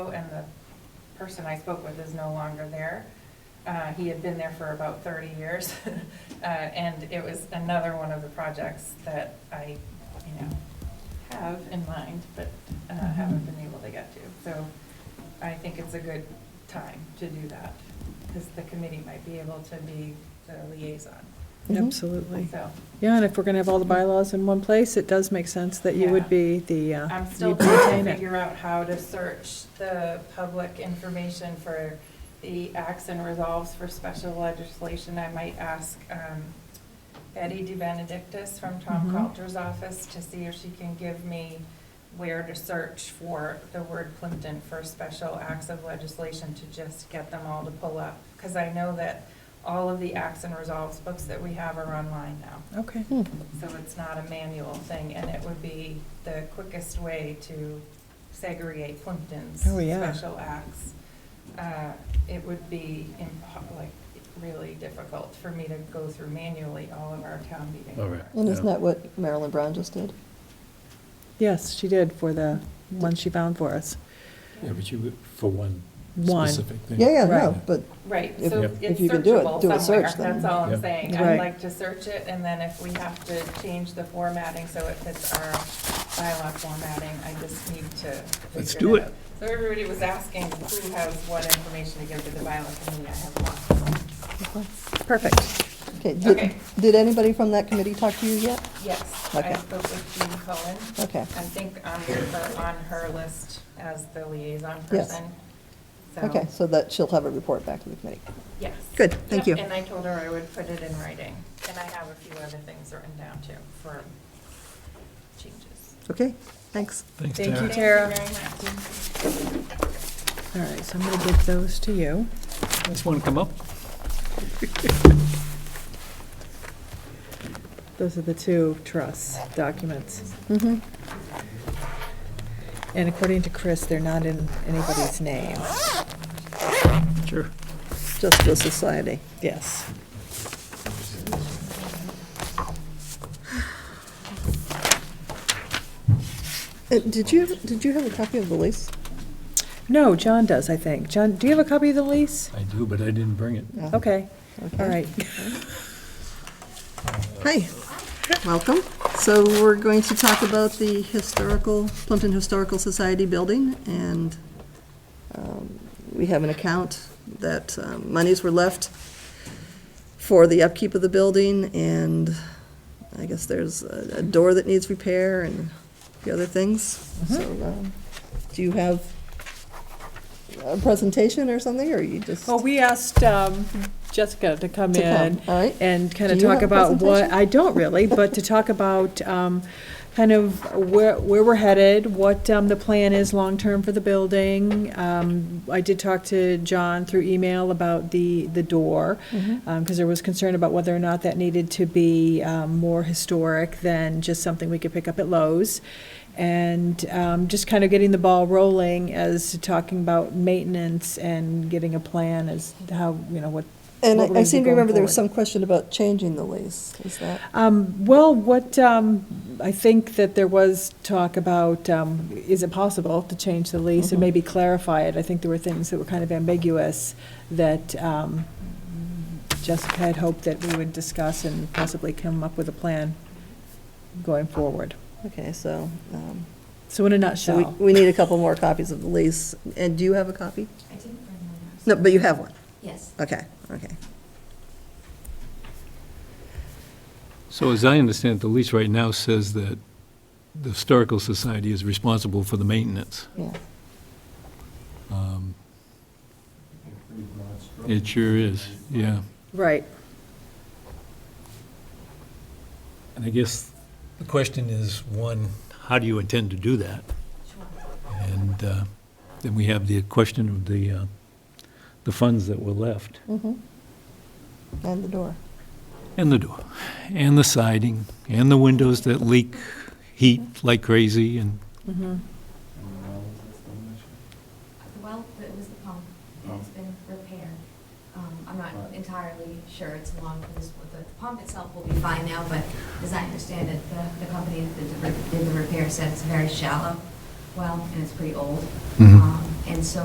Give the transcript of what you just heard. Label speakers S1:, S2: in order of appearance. S1: person I spoke with is no longer there. Uh, He had been there for about 30 years, Uh, and it was another one of the projects that I, you know, have in mind, but uh, haven't been able to get to. So I think it's a good time to do that, because the committee might be able to be the liaison,
S2: Mhm.
S3: Absolutely.
S1: so.
S3: Yeah, and if we're going to have all the bylaws in one place, it does make sense that you
S1: Yeah.
S3: would be the, uh,
S1: I'm still
S3: you'd
S1: trying
S3: maintain
S1: to
S3: it.
S1: figure out how to search the public information for the acts and resolves for special legislation. I might ask um, Betty DeBenedictis from Tom
S3: Mhm.
S1: Coulter's office to see if she can give me where to search for the word Plimpton for special acts of legislation to just get them all to pull up. Because I know that all of the acts and resolves books that we have are online now.
S3: Okay.
S2: Hmm.
S1: So it's not a manual thing, and it would be the quickest way to segregate Plimpton's
S3: Oh, yeah.
S1: special acts. Uh, It would be impo- like really difficult for me to go through manually all of our town meeting.
S4: All right.
S2: And isn't
S4: Yeah.
S2: that what Marilyn Brown just did?
S3: Yes, she did for the one she found for us.
S4: Yeah, but you, for one
S3: One.
S4: specific thing.
S2: Yeah, yeah,
S3: Right.
S2: no, but,
S1: Right,
S2: If-
S1: so
S4: Yep.
S1: it's
S2: if you can do it, do
S1: searchable somewhere,
S2: a search then.
S1: that's all I'm
S4: Yep.
S1: saying. I'd
S3: Right.
S1: like to search it, and then if we have to change the formatting so it fits our bylaw formatting, I just need to.
S4: Let's
S1: figure
S4: do
S1: out.
S4: it.
S1: So everybody was asking who has what information to give to the bylaw committee, I have lots of them.
S3: Perfect.
S2: okay.
S1: Okay.
S2: Did, did anybody from that committee talk to you yet?
S1: Yes, I
S2: Okay.
S1: spoke with Jean Cohen.
S2: Okay.
S1: I think on her, on her list as the liaison
S2: Yes.
S1: person. So-
S2: Okay, so that she'll have a report back to the committee.
S1: Yes.
S2: Good, thank
S1: Yep,
S2: you.
S1: And I told her I would put it in writing, and I have a few other things written down too for changes.
S2: Okay, thanks.
S4: Thanks,
S3: Thank
S4: Tara.
S3: you, Tara.
S1: Thank you very much.
S3: All right, so I'm going to give those to you.
S4: Just want to come up?
S3: Those are the two trusts documents.
S2: Mm-hmm.
S3: And according to Chris, they're not in anybody's name.
S4: Sure.
S2: Justice Society.
S3: Yes.
S2: Uh, Did you, did you have a copy of the lease?
S3: No, John does, I think. John, do you have a copy of the lease?
S4: I do, but I didn't bring it.
S2: No.
S3: Okay,
S2: Oh, Okay.
S3: all right.
S2: Hi, welcome. So we're going to talk about the historical, Plimpton Historical Society building, and um, we have an account that um, monies were left for the upkeep of the building, and I guess there's a a door that needs repair and the other things.
S3: Mm-hmm.
S2: So, um, do you have a presentation or something, or you just?
S3: Well, we asked um, Jessica to come
S2: To come,
S3: in
S2: all right.
S3: and kind of
S2: Do you
S3: talk
S2: have a
S3: about what,
S2: presentation?
S3: I don't really, but to talk about um, kind of where, where we're headed, what um, the plan is long-term for the building. Um, I did talk to John through email about the, the door,
S2: Mm-hmm.
S3: because there was concern about whether or not that needed to be um, more historic than just something we could pick up at Lowe's. And um, just kind of getting the ball rolling as to talking about maintenance and getting a plan as to how, you know, what.
S2: And
S3: what we're
S2: I- I
S3: gonna do
S2: seem to
S3: going
S2: remember there was
S3: forward.
S2: some question about changing the lease, is that?
S3: Um, well, what, um, I think that there was talk about, um, is it possible to change the lease and maybe clarify it? I think there were things that were kind of ambiguous that, um, Jessica had hoped that we would discuss and possibly come up with a plan going forward.
S2: Okay, so, um,
S3: So in a
S2: so we,
S3: nutshell,
S2: we need a couple more copies of the lease, and do you have a copy?
S5: I didn't bring my notes.
S2: No, but you have one,
S5: Yes.
S2: okay, okay.
S4: So as I understand it, the lease right now says that the Historical Society is responsible for the maintenance.
S2: Yeah.
S4: Um, It sure is, yeah.
S3: right,
S4: And I guess the question is, one, how do you intend to do that?
S5: Sure.
S4: And uh, then we have the question of the, uh, the funds that were left,
S2: Mm-hmm. And the door.
S4: and the door, and the siding, and the windows that leak heat like crazy, and
S3: mm-hmm.
S5: Well, it was the pump. It's been repaired. Um, I'm not entirely sure it's long for this, the pump itself will be fine now, but as I understand it, the, the company that did the re- did the repair said it's a very shallow well, and it's pretty old.
S4: Mhm.
S5: Um, And so